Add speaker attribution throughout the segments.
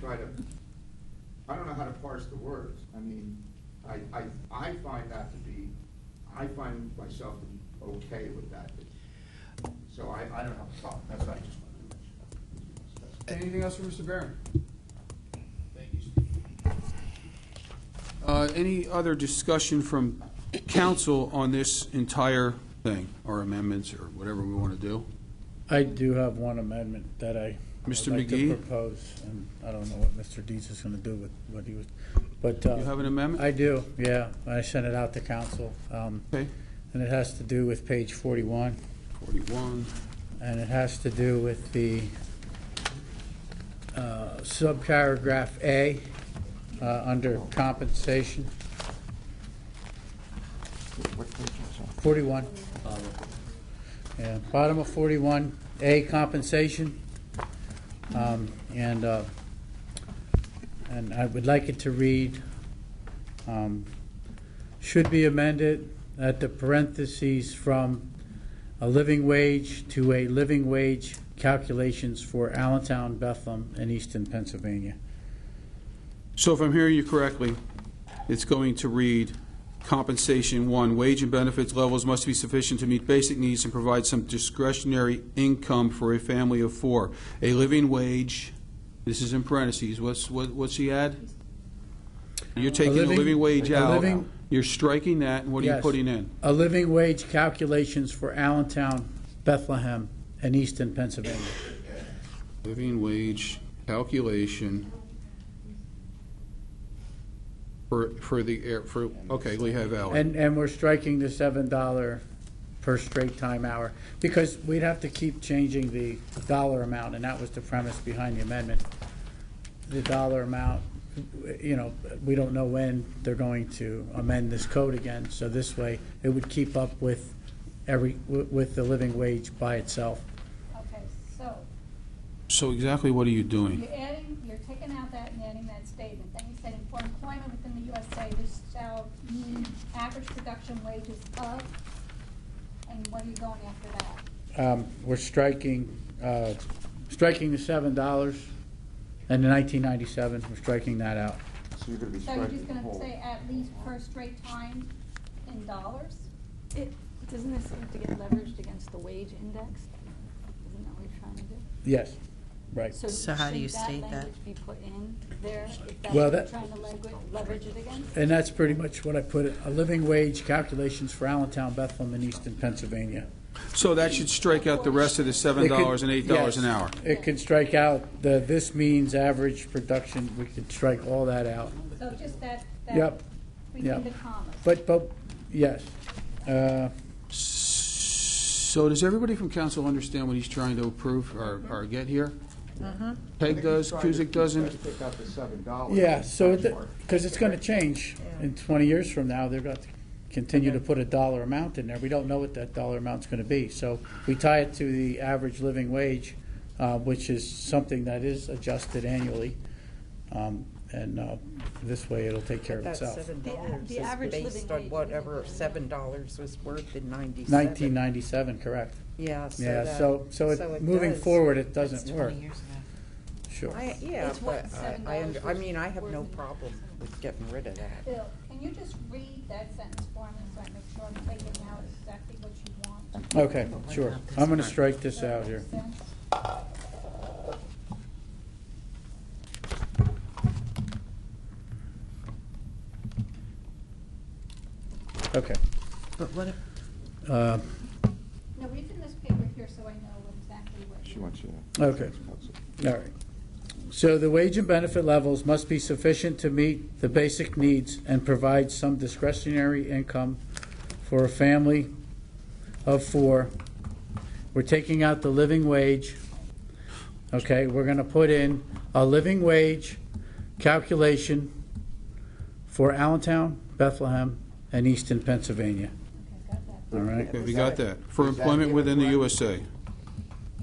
Speaker 1: try to, I don't know how to parse the words. I mean, I, I, I find that to be, I find myself to be okay with that. So I, I don't have a problem, that's what I just wanted to mention.
Speaker 2: Anything else from Mr. Barron?
Speaker 3: Thank you, Steve.
Speaker 2: Uh, Any other discussion from council on this entire thing, or amendments, or whatever we want to do?
Speaker 4: I do have one amendment that I. would
Speaker 2: Mr.
Speaker 4: like to
Speaker 2: McGee?
Speaker 4: Propose, and I don't know what Mr. Dietz is gonna do with what he was, but. uh,
Speaker 2: You have an amendment?
Speaker 4: I do, yeah. I sent it out to council, um,
Speaker 2: Okay,
Speaker 4: and it has to do with page forty-one,
Speaker 2: 41,
Speaker 4: and it has to do with the, uh, subparagraph A, uh, under compensation,
Speaker 1: What page is that?
Speaker 4: forty-one. Yeah, bottom of forty-one, A, compensation. Um, And, uh, and I would like it to read, um, should be amended at the parentheses from a living wage to a living wage calculations for Allentown, Bethlehem, and Easton, Pennsylvania.
Speaker 2: So if I'm hearing you correctly, it's going to read compensation, one, wage and benefits levels must be sufficient to meet basic needs and provide some discretionary income for a family of four. A living wage, this is in parentheses, what's, what- what's he add? You're taking a
Speaker 4: living-
Speaker 2: living wage
Speaker 4: a
Speaker 2: out,
Speaker 4: living-
Speaker 2: you're striking that, and what are you
Speaker 4: Yes.
Speaker 2: putting in?
Speaker 4: A living wage calculations for Allentown, Bethlehem, and Easton, Pennsylvania.
Speaker 2: Living wage calculation for, for the, air for, okay, Lehigh Valley.
Speaker 4: And, and we're striking the seven dollar per straight time hour, because we'd have to keep changing the dollar amount, and that was the premise behind the amendment. The dollar amount, you know, we don't know when they're going to amend this code again, so this way, it would keep up with every, wi- with the living wage by itself.
Speaker 5: Okay, so
Speaker 2: So exactly what are you doing?
Speaker 5: you're adding, you're taking out that and adding that statement. Then you said, "For employment within the USA, this shall mean average production wages of," and what are you going after that?
Speaker 4: Um, we're striking, uh, striking the seven dollars, and the nineteen ninety-seven, we're striking that out.
Speaker 1: So you're gonna be
Speaker 5: So you're
Speaker 1: striking
Speaker 5: just
Speaker 1: the
Speaker 5: gonna
Speaker 1: whole.
Speaker 5: say at least per straight time in dollars?
Speaker 6: It, doesn't this have to get leveraged against the wage index? Isn't that what you're trying to do?
Speaker 4: Yes, right.
Speaker 7: So how do you state that?
Speaker 6: Should that language be put in there, if
Speaker 4: Well,
Speaker 6: that's what you're
Speaker 4: that-
Speaker 6: trying to langu- leverage it against?
Speaker 4: And that's pretty much what I put it, a living wage calculations for Allentown, Bethlehem, and Easton, Pennsylvania.
Speaker 2: So that should strike out the rest of the seven
Speaker 4: It could-
Speaker 2: dollars and eight dollars an
Speaker 4: yes.
Speaker 2: hour.
Speaker 4: It could strike out the, this means average production, we could strike all that out.
Speaker 5: So just that, that,
Speaker 4: Yep,
Speaker 5: between
Speaker 4: yep.
Speaker 5: the commas.
Speaker 4: but, but, yes. Uh,
Speaker 2: So does everybody from council understand what he's trying to approve or, or get here? Peg does, Kuzic doesn't.
Speaker 1: Pick up the seven dollars.
Speaker 4: Yeah, so, because it's going to change in 20 years from now, they're going to continue to put a dollar amount in there. We don't know what that dollar amount's going to be. So we tie it to the average living wage, uh, which is something that is adjusted annually. Um, And uh, this way, it'll take care of
Speaker 7: That
Speaker 4: itself.
Speaker 7: seven
Speaker 6: The-
Speaker 7: dollars
Speaker 6: the
Speaker 7: is
Speaker 6: average
Speaker 7: based
Speaker 6: living
Speaker 7: on
Speaker 6: wage
Speaker 7: whatever seven dollars was worth in ninety-seven.
Speaker 4: 1997, correct.
Speaker 7: Yeah, so
Speaker 4: Yeah,
Speaker 7: that-
Speaker 4: so- so it-
Speaker 7: it
Speaker 4: moving
Speaker 7: does-
Speaker 4: forward, it
Speaker 7: that's
Speaker 4: doesn't
Speaker 7: 20
Speaker 4: work.
Speaker 7: years ago.
Speaker 4: Sure.
Speaker 7: I, yeah,
Speaker 6: It's what
Speaker 7: but I,
Speaker 6: $7
Speaker 7: I, under- I
Speaker 6: was
Speaker 7: mean, I have no
Speaker 6: worth in
Speaker 7: problem with getting rid of that.
Speaker 5: Bill, can you just read that sentence for me so I make sure I'm taking out exactly what you want?
Speaker 4: Okay,
Speaker 7: Oh,
Speaker 4: sure. I'm going to strike this out here.
Speaker 5: Does that make sense?
Speaker 4: Okay.
Speaker 7: But what if,
Speaker 4: Uh,
Speaker 5: No, read the newspaper here so I know exactly what.
Speaker 1: She
Speaker 5: you-
Speaker 1: wants you to.
Speaker 4: Okay. All right. So the wage and benefit levels must be sufficient to meet the basic needs and provide some discretionary income for a family of four. We're taking out the living wage. Okay, we're going to put in a living wage calculation for Allentown, Bethlehem, and Easton, Pennsylvania.
Speaker 5: Okay, got that.
Speaker 4: All right?
Speaker 2: Okay, We got that. For
Speaker 1: Is that
Speaker 2: employment within the
Speaker 1: even correct?
Speaker 2: USA.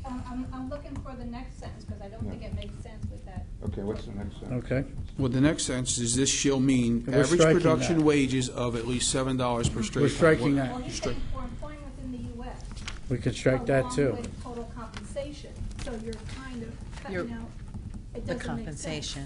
Speaker 5: Um, I'm, I'm looking for the next sentence, because I don't think it makes sense with that.
Speaker 1: Okay, what's the next sentence?
Speaker 4: Okay?
Speaker 2: Well, the next sentence is this shall mean
Speaker 4: We're
Speaker 2: average
Speaker 4: striking
Speaker 2: production
Speaker 4: that.
Speaker 2: wages of at least seven dollars per straight.
Speaker 4: We're
Speaker 2: time.
Speaker 4: striking
Speaker 2: What-
Speaker 4: that.
Speaker 5: Well, he's saying for employment within the US.
Speaker 4: We could strike that too.
Speaker 5: Along with total compensation, so you're kind of
Speaker 7: You're-
Speaker 5: cutting out, it doesn't make
Speaker 7: the
Speaker 5: sense.
Speaker 7: compensation?